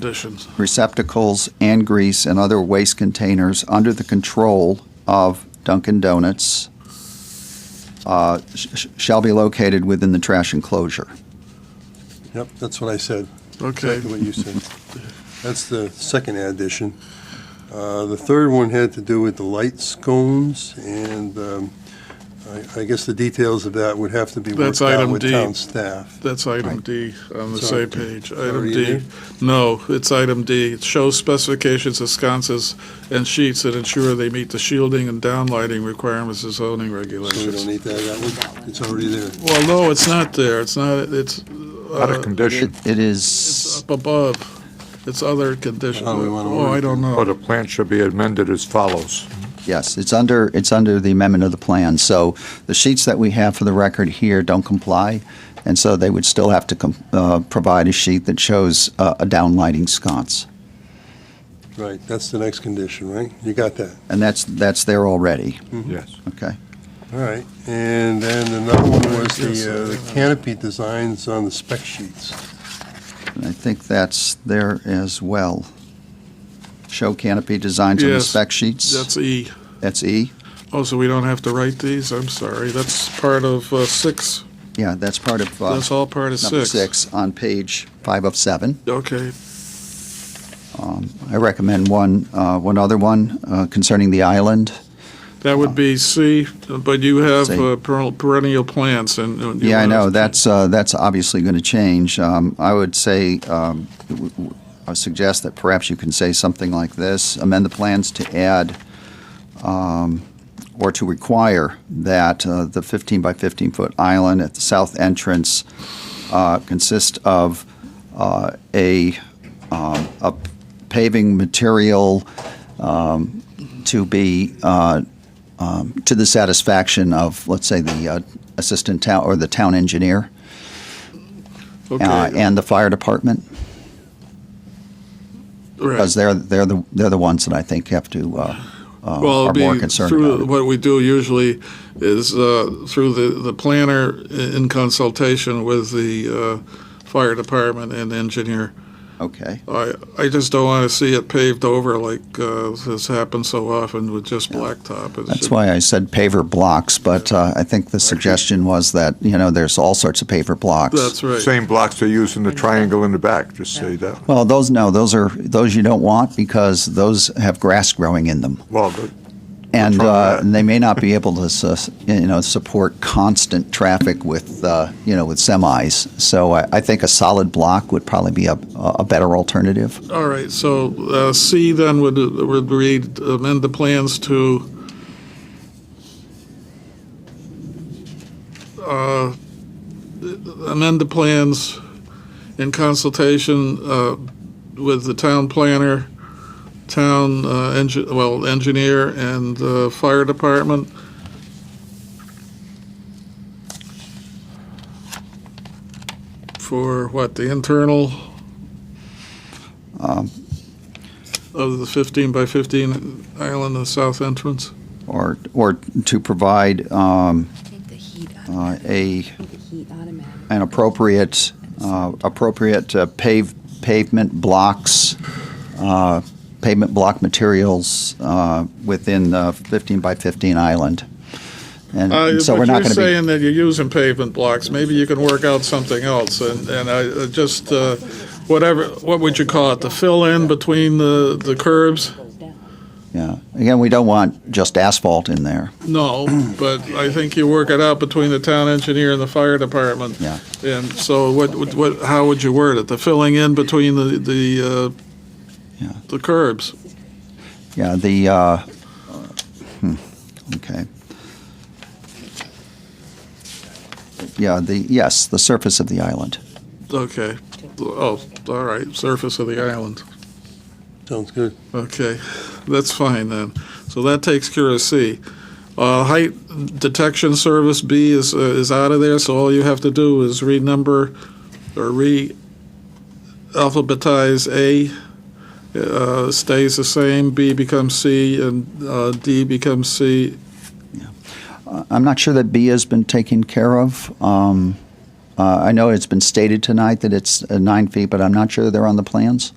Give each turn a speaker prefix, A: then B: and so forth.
A: conditions.
B: receptacles and grease and other waste containers under the control of Dunkin' Donuts uh, sh- sh- shall be located within the trash enclosure.
C: Yep, that's what I said.
A: Okay,
C: Exactly what you said. That's the second addition. Uh, The third one had to do with the light scones, and um, I- I guess the details of that would have to be
A: That's
C: worked out
A: item
C: with
A: D.
C: town staff.
A: that's item D on the
C: Sorry.
A: same page.
C: Already
A: Item D,
C: there?
A: no, it's item D. It shows specifications of sconces and sheets that ensure they meet the shielding and downlighting requirements of zoning
C: So we don't
A: regulations.
C: need that, that one, it's already there.
A: Well, no, it's not there. It's not, it's,
D: Not a
A: uh,
D: condition,
B: It it
A: it's
B: is,
A: up above. It's other conditions.
C: Oh, we wanna
A: Oh, I
C: work
A: don't
C: on-
A: know.
D: but a plan should be amended as follows.
B: yes, it's under, it's under the amendment of the plan. So the sheets that we have for the record here don't comply, and so they would still have to com- uh, provide a sheet that shows uh, a downlighting sconce.
C: Right, that's the next condition, right? You got that?
B: And that's, that's there already,
D: Yes.
B: okay?
C: All right, and then another one was
A: Yes,
C: the uh, the
A: I-
C: canopy designs on the spec sheets.
B: And I think that's there as well. Show canopy designs on the
A: Yes,
B: spec sheets.
A: That's E.
B: That's E?
A: Oh, so we don't have to write these? I'm sorry. That's part of uh, six.
B: Yeah, that's part of uh,
A: That's all part of
B: number
A: six.
B: six on page five of seven.
A: Okay,
B: I recommend one, uh, one other one uh, concerning the island.
A: that would be C, but you have
B: C.
A: uh, per- perennial plants and. and you
B: Yeah, I
A: wanna-
B: know, that's, uh, that's obviously going to change. Um, I would say, um, w- w- I suggest that perhaps you can say something like this, amend the plans to add, um, or to require that uh, the 15 by 15 foot island at the south entrance uh, consist of uh, a, um, a paving material um, to be uh, to the satisfaction of, let's say, the uh, assistant town, or the town engineer uh,
A: Okay,
B: and the fire department, because
A: right.
B: they're, they're the, they're the ones that I think have to, uh, uh,
A: Well,
B: are
A: it'd
B: more
A: be
B: concerned
A: through-
B: about it.
A: What we do usually is uh, through the, the planner i- in consultation with the uh, fire department and engineer.
B: Okay,
A: I, I just don't want to see it paved over like uh, has happened so often with just blacktop. It
B: that's
A: should-
B: why I said paver blocks, but uh, I think the suggestion was that, you know, there's all sorts of paver blocks.
A: That's right.
D: Same blocks they use in the triangle in the back, just say that.
B: Well, those, no, those are, those you don't want, because those have grass growing in them.
D: Well, the-
B: And
D: Control
B: uh,
D: that.
B: they may not be able to, sus- you know, support constant traffic with, uh, you know, with semis. So I, I think a solid block would probably be a, a better alternative.
A: All right, so uh, C then would, would read amend the plans to uh, amend the plans in consultation uh, with the town planner, town, uh, engi- well, engineer and uh, fire department. For what, the internal?
B: Um,
A: of the 15 by 15 island, the south entrance?
B: Or, or to provide um,
E: Take the heat out.
B: uh, a,
E: Take the heat out of me.
B: an appropriate, uh, appropriate uh, pave, pavement blocks, uh, pavement block materials uh, within the 15 by 15 island. And and Mm, so we're not
A: Uh, But
B: going to
A: you're
B: be.
A: saying that you're using pavement blocks, maybe you can work out something else, and, and I, uh, just, uh, whatever, what would you call it, the fill-in between the, the curbs?
B: Yeah. Again, we don't want just asphalt in there.
A: No, but I think you work it out between the town engineer and the fire department.
B: Yeah.
A: And so what, would- what, how would you word it, the filling in between the, the,
B: Yeah.
A: uh, the curbs?
B: Yeah, the, uh, hmm, okay. Yeah, the, yes, the surface of the island.
A: Okay, oh, all right, surface of the island.
C: Sounds good.
A: Okay, that's fine then. So that takes care of C. Uh, height detection service B is, uh, is out of there, so all you have to do is renumber or re-alphabetize A. Uh, stays the same, B becomes C, and, uh, D becomes C.
B: Uh, I'm not sure that B has been taken care of. Um, uh, I know it's been stated tonight that it's uh, nine feet, but I'm not sure they're on the plans.